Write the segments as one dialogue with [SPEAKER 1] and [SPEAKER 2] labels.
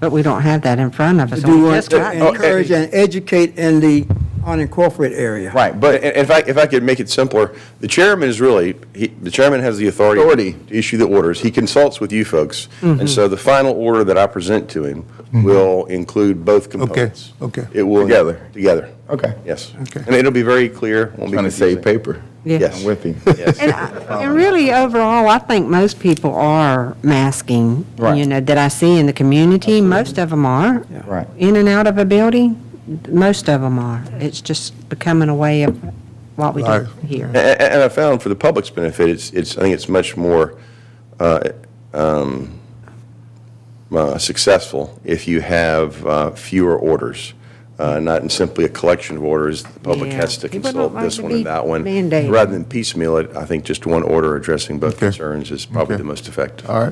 [SPEAKER 1] But we don't have that in front of us.
[SPEAKER 2] Do
[SPEAKER 1] and we
[SPEAKER 2] want
[SPEAKER 1] just got
[SPEAKER 2] to
[SPEAKER 1] it.
[SPEAKER 2] encourage and educate in the unincorporated area.
[SPEAKER 3] Right,
[SPEAKER 4] But i- if I, if I could make it simpler, the chairman is really, he- the chairman has the authority.
[SPEAKER 3] Authority. Mm-hmm.
[SPEAKER 4] To issue the orders. He consults with you folks. And so the final order that I present to him will include both components.
[SPEAKER 5] okay.
[SPEAKER 4] It will.
[SPEAKER 3] Together.
[SPEAKER 4] Together.
[SPEAKER 3] Okay.
[SPEAKER 4] Yes.
[SPEAKER 5] Okay.
[SPEAKER 4] And it'll be very clear. won't be
[SPEAKER 3] Trying to
[SPEAKER 4] confusing.
[SPEAKER 3] save paper.
[SPEAKER 1] Yeah.
[SPEAKER 4] Yes.
[SPEAKER 3] I'm with him.
[SPEAKER 1] And I- and really, overall, I think most people are masking, you
[SPEAKER 3] Right.
[SPEAKER 1] know, that I see in the community. Most of them are.
[SPEAKER 3] Right.
[SPEAKER 1] In and out of a building, most of them are. It's just becoming a way of what we do
[SPEAKER 5] Right.
[SPEAKER 1] here.
[SPEAKER 4] A- a- And I found for the public's benefit, it's, it's, I think it's much more uh, um, uh, successful if you have uh, fewer orders, uh, not in simply a collection of orders. The public
[SPEAKER 1] Yeah.
[SPEAKER 4] has to
[SPEAKER 1] People don't
[SPEAKER 4] consult
[SPEAKER 1] like
[SPEAKER 4] this
[SPEAKER 1] to
[SPEAKER 4] one and
[SPEAKER 1] be
[SPEAKER 4] that one.
[SPEAKER 1] mandated.
[SPEAKER 4] Rather than piecemeal it, I think just one order addressing both
[SPEAKER 5] Okay.
[SPEAKER 4] concerns is probably
[SPEAKER 5] Okay.
[SPEAKER 4] the most effective.
[SPEAKER 5] All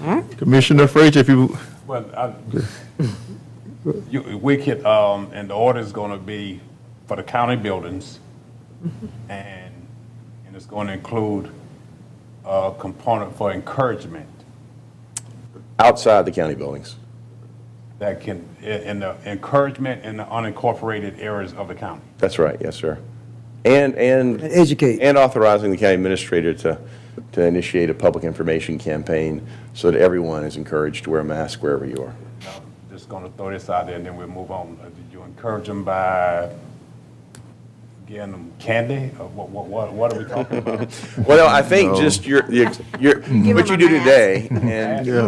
[SPEAKER 5] right. Commissioner Frazier, if you,
[SPEAKER 6] Well, I, you, we could, um, and the order's gonna be for the county buildings, and, and it's gonna include a component for encouragement
[SPEAKER 4] Outside the county buildings.
[SPEAKER 6] that can, in, in the encouragement in the unincorporated areas of the county.
[SPEAKER 4] That's right, yes, sir. And, and.
[SPEAKER 2] And educate.
[SPEAKER 4] And authorizing the county administrator to, to initiate a public information campaign so that everyone is encouraged to wear a mask wherever you are.
[SPEAKER 6] Now, Just gonna throw this out there, and then we'll move on. Uh, Did you encourage them by getting them candy, or what, what- what, what are we talking about?
[SPEAKER 4] Well, I think just your, your, your- what you
[SPEAKER 1] them
[SPEAKER 4] do
[SPEAKER 1] a mask.
[SPEAKER 4] today, and and you-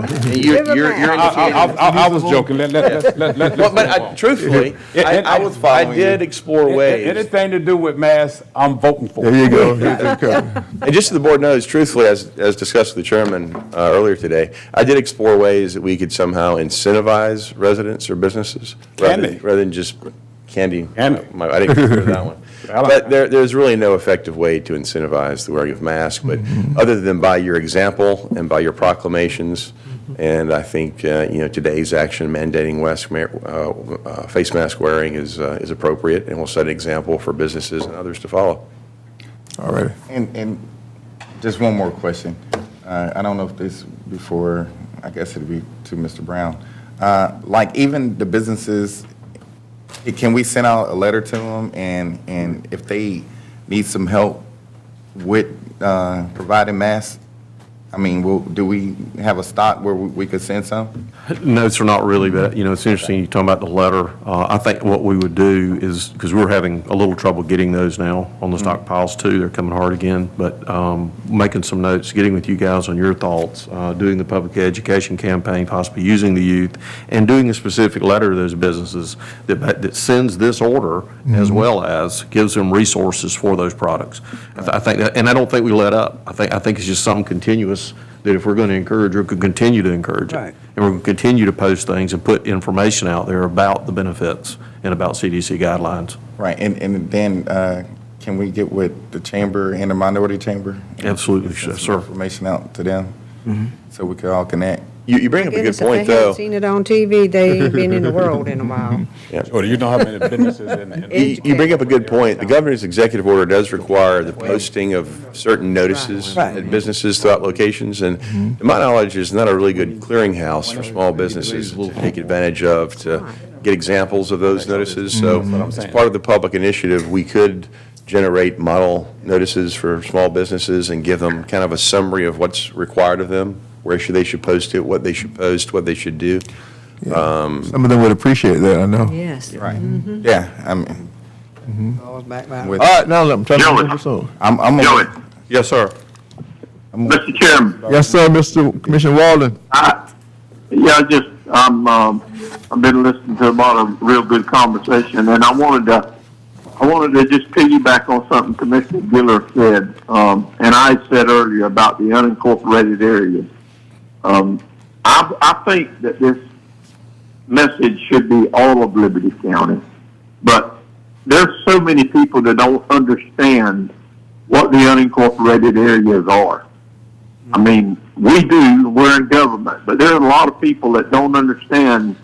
[SPEAKER 1] Give
[SPEAKER 4] you're,
[SPEAKER 1] them
[SPEAKER 4] you're
[SPEAKER 1] a mask.
[SPEAKER 6] I, I,
[SPEAKER 4] indicating.
[SPEAKER 6] I- I- I was joking, let, let, let- let, let.
[SPEAKER 4] Well, But
[SPEAKER 6] let's move
[SPEAKER 4] I-
[SPEAKER 6] on.
[SPEAKER 4] truthfully,
[SPEAKER 6] It-
[SPEAKER 4] I,
[SPEAKER 6] it-
[SPEAKER 4] I
[SPEAKER 6] it-
[SPEAKER 4] was, I did explore
[SPEAKER 6] It- it-
[SPEAKER 4] ways.
[SPEAKER 6] Anything to do with masks, I'm voting for.
[SPEAKER 5] there you go. Here they come.
[SPEAKER 4] And just so the board knows, truthfully, as, as discussed with the chairman uh, earlier today, I did explore ways that we could somehow incentivize residents or businesses. rather-
[SPEAKER 6] Candy.
[SPEAKER 4] Rather than just candy.
[SPEAKER 6] Candy.
[SPEAKER 4] My- I didn't consider that one.
[SPEAKER 6] Well, I-
[SPEAKER 4] But there, there's really no effective way to incentivize the wearing of masks, but other than by your example and by your proclamations, and I think, uh, you know, today's action mandating West, ma- uh, uh, face mask wearing is, uh, is appropriate, and will set an example for businesses and others to follow.
[SPEAKER 5] All right.
[SPEAKER 3] And, and just one more question. Uh, I don't know if this before, I guess it'd be to Mr. Brown. Uh, Like even the businesses, eh, can we send out a letter to them and, and if they need some help with uh, providing masks? I mean, will, do we have a stock where we we could send some?
[SPEAKER 7] No, sir, not really, but, you know, it's interesting, you're talking about the letter. Uh, I think what we would do is, because we're having a little trouble getting those now on the stockpiles too, they're coming hard again, but um, making some notes, getting with you guys on your thoughts, uh, doing the public education campaign, possibly using the youth, and doing a specific letter to those businesses that, that sends this order as well as gives them resources for those products. I th- I think, that- and I don't think we let up. I think, I think it's just something continuous, that if we're going to encourage, or could continue to encourage it.
[SPEAKER 2] Right.
[SPEAKER 7] And we're going to continue to post things and put information out there about the benefits and about CDC guidelines.
[SPEAKER 3] Right, and, and then uh, can we get with the chamber and the minority chamber?
[SPEAKER 7] Absolutely,
[SPEAKER 3] Send some
[SPEAKER 7] sir.
[SPEAKER 3] Information out to them, so we could all connect.
[SPEAKER 4] You, you bring up a good
[SPEAKER 1] Goodness,
[SPEAKER 4] point,
[SPEAKER 1] If they
[SPEAKER 4] though.
[SPEAKER 1] haven't seen it on TV, they ain't been in the world in a while.
[SPEAKER 6] Or do you know how many businesses in the?
[SPEAKER 4] You you bring up a good point. The governor's executive order does require the posting of certain notices
[SPEAKER 2] Right.
[SPEAKER 4] at businesses throughout locations, and to my knowledge, is not a really good clearinghouse for small businesses to take advantage of, to get examples of those notices. So as part of the public initiative, we could generate model notices for small businesses and give them kind of a summary of what's required of them, where should they should post it, what they should post, what they should do.
[SPEAKER 5] Some of them would appreciate that, I know.
[SPEAKER 1] Yes.
[SPEAKER 3] Right. Yeah, I'm,
[SPEAKER 2] All back by-
[SPEAKER 3] with,
[SPEAKER 5] All right, now I'm trying to
[SPEAKER 8] Gentlemen.
[SPEAKER 5] remember something.
[SPEAKER 3] I'm, I'm.
[SPEAKER 8] Joey,
[SPEAKER 7] Yes, sir.
[SPEAKER 8] Mr. Chairman,
[SPEAKER 5] Yes, sir, Mr. Commissioner Walden.
[SPEAKER 8] I, yeah, I just, I'm, um, I've been listening to a lot of real good conversation, and I wanted to, I wanted to just piggyback on something Commissioner Giller said, um, and I said earlier about the unincorporated areas. Um, I, I think that this message should be all of Liberty County, but there's so many people that don't understand what the unincorporated areas are. I mean, we do, we're in government, but there are a lot of people that don't understand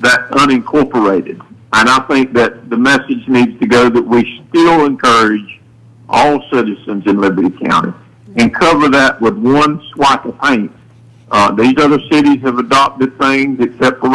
[SPEAKER 8] that unincorporated. And I think that the message needs to go that we still encourage all citizens in Liberty County and cover that with one swipe of paint. Uh, these other cities have adopted things except for